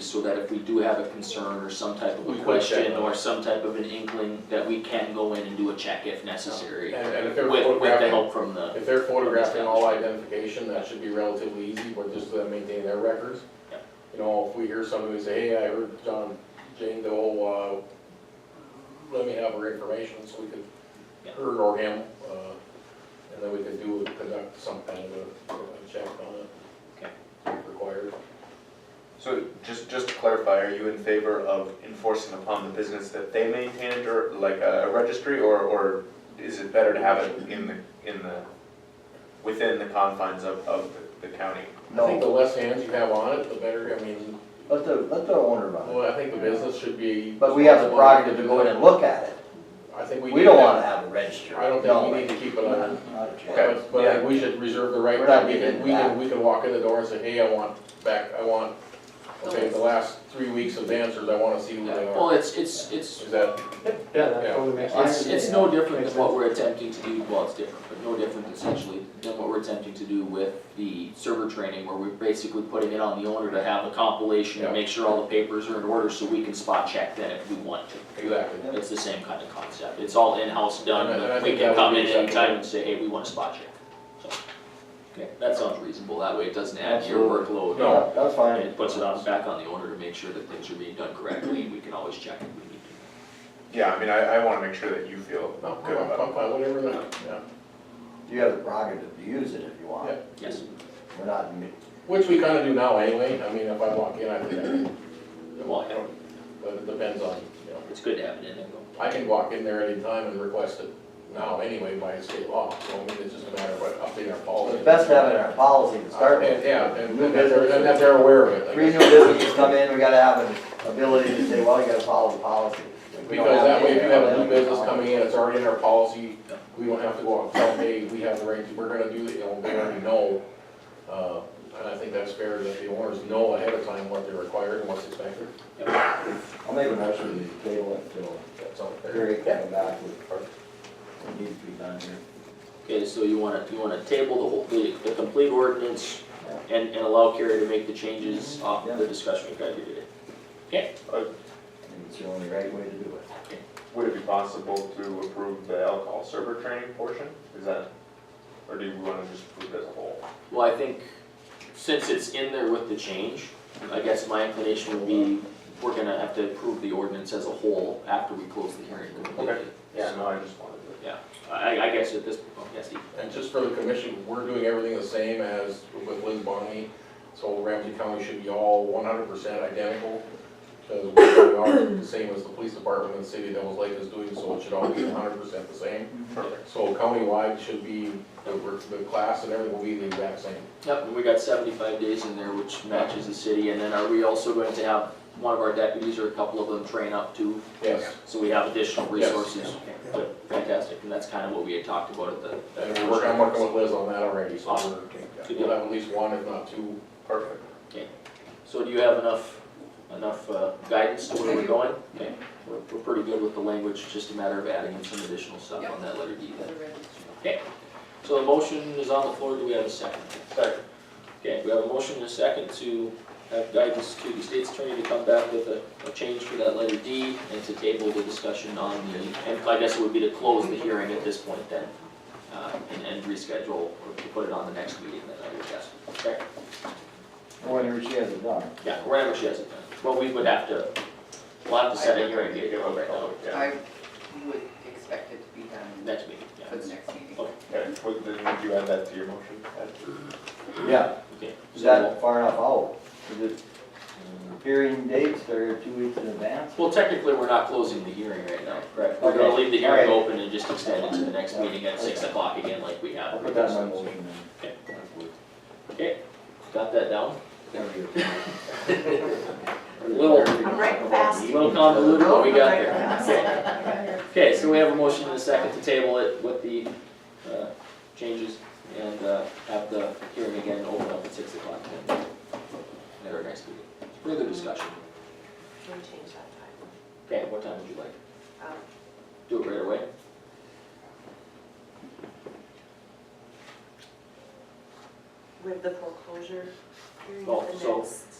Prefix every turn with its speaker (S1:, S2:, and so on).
S1: so that if we do have a concern or some type of
S2: We
S1: a
S2: can check
S1: question
S2: on it.
S1: or some type of an inkling, that we can go in and do a check if necessary.
S2: And, and if they're
S1: With, with the
S2: photographing,
S1: help from the,
S2: if they're photographing all identification, that should be relatively easy, but just to maintain their records.
S1: Yeah.
S2: You know, if we hear somebody say, hey, I heard John Jane Doe, uh, let me have her information, so we could,
S1: Yeah.
S2: her or him, uh, and then we could do, conduct some kind of a, a check on it.
S1: Okay.
S2: if Required.
S3: So just, just to clarify, are you in favor of enforcing upon the business that they maintain a dir- like a registry, or, or is it better to have it in the, in the, within the confines of, of the county?
S2: I think the
S4: No,
S2: less hands you have on it, the better, I mean,
S4: let the, let the owner run it.
S2: well, I think the business should be.
S4: But we have the
S2: responsible
S4: prerogative to go in and look at it.
S2: I think we.
S4: We
S2: need
S4: don't
S2: to-
S4: wanna have it registered.
S2: I don't
S4: No,
S2: think we need to keep it on.
S4: not- not a chance.
S3: Okay.
S2: But but I think we should reserve the right,
S4: We're not
S2: we
S4: getting
S2: can, we
S4: into
S2: can, we can walk in the door and say, hey, I want back, I want, okay, the last three weeks of dancers, I wanna see who they
S1: well,
S2: are.
S1: it's, it's, it's,
S2: Is that,
S5: Yeah, that
S2: Yeah.
S5: totally makes
S1: it's,
S5: sense.
S1: it's no different than what we're attempting to do, well, it's different, but no different essentially than what we're attempting to do with the server training, where we're basically putting it on the owner to have a compilation
S2: Yeah.
S1: and make sure all the papers are in order, so we can spot check then if we want to.
S2: exactly.
S4: Yep.
S1: It's the same kind of concept, it's all in-house done,
S2: And I- and I
S1: but we
S2: think
S1: can
S2: that would
S1: come
S2: be
S1: in
S2: acceptable.
S1: anytime and say, hey, we want a spot check. So, Okay, that sounds reasonable, that way it doesn't add to your workload.
S2: No.
S4: Yeah, That's fine.
S1: And it puts it on, back on the owner to make sure that things are being done correctly, and we can always check if we need to.
S3: Yeah, I mean, I, I wanna make sure that you feel
S2: No,
S3: good
S2: I'm,
S3: about
S2: I'm fine, whatever, that- yeah.
S4: You have the prerogative to use it if you want.
S2: Yeah.
S1: Yes,
S4: We're not, mi-
S2: Which we kinda do now anyway, I mean, if I walk in, I think I can.
S1: Well, yeah.
S2: But it depends on, you know,
S1: it's good to have it in there though.
S2: I can walk in there anytime and request it now anyway by state law, so I mean, it's just a matter of what- updating our policy.
S4: it's best to have it in our policy to start
S2: And,
S4: with.
S2: Oh. yeah, and and that they're, and that they're aware of it. I
S4: Three
S2: guess.
S4: new businesses come in, we gotta have an ability to say, well, you gotta follow the policy. If we don't
S2: Because that way, if you have a
S4: it,
S2: new business coming in, it's already in our policy, we don't have to go out and tell, hey, we have the right, to- we're gonna do it, you know, they already know. Uh, and I think that's fair that the owners know ahead of time what they're required and what's expected,
S4: I'll make a motion to table it till
S2: that's all fair.
S4: Gary comes back with what needs to be done here.
S1: Okay, so you wanna, you wanna table the whole, the, the complete ordinance and, and allow Carrie to make the changes off of the discussion we've had here today.
S4: I think it's the only right way to do it.
S3: it. Would it be possible to approve the alcohol server training portion? Is that, or do you wanna just approve it as a whole?
S1: Well, I think since it's in there with the change, I guess my inclination would be, we're gonna have to approve the ordinance as a whole after we close the hearing completely.
S3: Okay. Yeah, no, I just wanted to.
S1: I, I guess at this, oh, yes, Steve.
S2: And just for the commission, we're doing everything the same as with Liz Bonnie, so Ramsey County should be all one hundred percent identical. Because we are the same as the police department in the city of Devils Lake is doing, so it should all be hundred percent the same.
S3: Perfect.
S2: So countywide should be, the, the class and everything will be the exact same.
S1: Yep, and we got seventy-five days in there, which matches the city, and then are we also going to have one of our deputies or a couple of them train up too?
S2: Yes,
S1: So we have additional
S2: Yes.
S1: resources? Okay, Fantastic, and that's kind of what we had talked about at the.
S2: and we're working, I'm working with Liz on that already, so we're, we'll have at least one, if not two.
S3: Perfect.
S1: So do you have enough, enough uh, guidance to where we're going? Okay, we're, we're pretty good with the language, it's just a matter of adding in some additional stuff on that letter D then. Okay, so the motion is on the floor, do we have a second?
S3: Second.
S1: Okay, we have a motion and a second to have guidance to the state's attorney to come back with a, a change for that letter D and to table the discussion on the, and I guess it would be to close the hearing at this point then, uh, and, and reschedule or to put it on the next meeting then, I would guess. Okay,
S4: Whenever she has it done.
S1: yeah, whenever she has it done. Well, we would have to, we'll have to set a hearing date right now,
S3: Oh, Yeah,
S6: I would expect it to be done
S1: next meeting,
S6: for
S1: yeah.
S6: the next meeting.
S3: okay, would, then would you add that to your motion? Add-
S4: Yeah,
S1: Okay,
S4: is
S1: so we'll-
S4: that far enough out? Is it um, hearing dates, they're two weeks in advance?
S1: Well, technically, we're not closing the hearing right now, correct? We're gonna leave the hearing open and just extend it to the next meeting at six o'clock again like we
S4: I'll
S1: have.
S4: put that in my motion
S1: Okay.
S4: then.
S1: Got that down?
S4: There we go.
S1: A Little,
S7: I'm right fast.
S1: little convoluted, but we got there.
S7: there.
S1: Okay, so we have a motion and a second to table it with the, uh, changes and, uh, have the hearing again open up at six o'clock then. At our next meeting. Further discussion.
S7: Can we change that
S1: Okay, what time would you like?
S7: time? Um,
S1: Do it right away?
S7: With the foreclosure period,
S1: Oh,
S7: the
S1: so-
S7: next um,